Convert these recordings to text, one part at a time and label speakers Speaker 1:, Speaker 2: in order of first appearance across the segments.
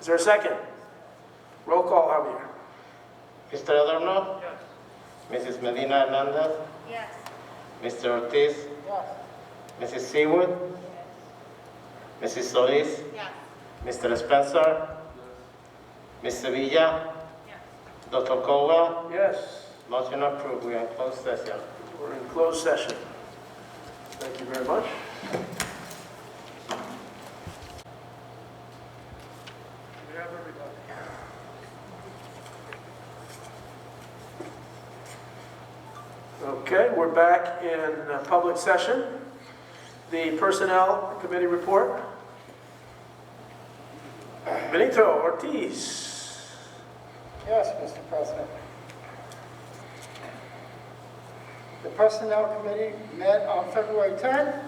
Speaker 1: Is there a second? Roll call, Javier.
Speaker 2: Mr. Adorno? Mrs. Medina Hernandez?
Speaker 3: Yes.
Speaker 2: Mr. Ortiz? Mrs. Seawood? Mrs. Solis?
Speaker 3: Yes.
Speaker 2: Mr. Spencer? Ms. Sevilla?
Speaker 3: Yes.
Speaker 2: Dr. Caldwell?
Speaker 1: Yes.
Speaker 2: Motion approved, we are in closed session.
Speaker 1: We're in closed session. Thank you very much. Okay, we're back in uh, public session. The Personnel Committee report. Benito Ortiz.
Speaker 4: Yes, Mr. President. The Personnel Committee met on February 10th.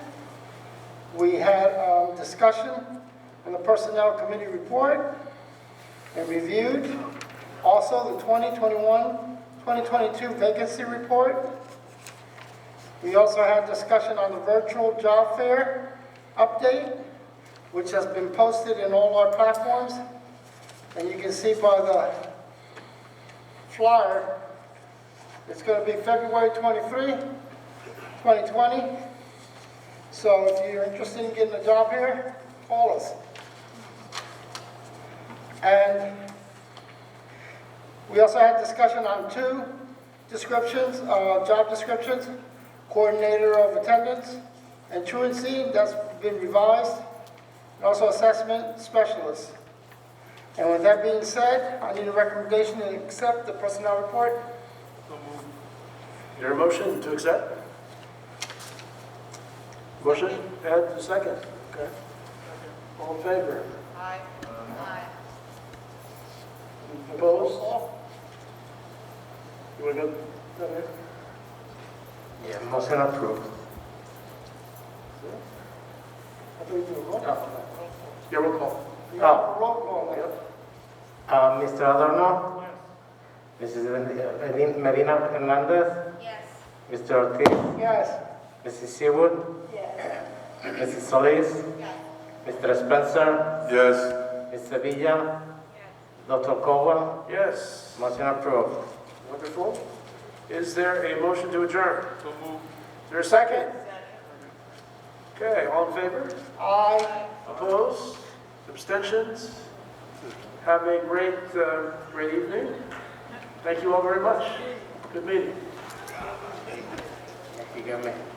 Speaker 4: We had um, discussion on the Personnel Committee report and reviewed also the 2021-2022 vacancy report. We also had discussion on the virtual job fair update, which has been posted in all our platforms. And you can see by the flyer. It's going to be February 23, 2020. So if you're interested in getting a job here, call us. And we also had discussion on two descriptions, uh, job descriptions, coordinator of attendance and truancy, that's been revised, and also assessment specialist. And with that being said, I need a recommendation to accept the personnel report.
Speaker 1: Is there a motion to accept? Motion, and a second, okay. All in favor?
Speaker 3: Aye. Aye.
Speaker 1: Opposed? You want to go? okay.
Speaker 2: Yeah, motion approved.
Speaker 4: I believe you were wrong.
Speaker 1: Yeah, roll call.
Speaker 4: You have a roll call now.
Speaker 2: Uh, Mr. Adorno? Mrs. Medi- Medin- Medina Hernandez?
Speaker 3: Yes.
Speaker 2: Mr. Ortiz?
Speaker 4: Yes,
Speaker 2: Mrs. Seawood? Mrs. Solis?
Speaker 3: Yes.
Speaker 2: Mr. Spencer?
Speaker 5: Yes,
Speaker 2: Ms. Sevilla? Dr. Caldwell?
Speaker 1: Yes,
Speaker 2: Motion approved.
Speaker 1: wonderful. Is there a motion to adjourn? So move. Is there a second? Okay, all in favor?
Speaker 4: I,
Speaker 1: Opposed? Abstentions? Have a great, uh, great evening. Thank you all very much. Good meeting.
Speaker 2: Dígame.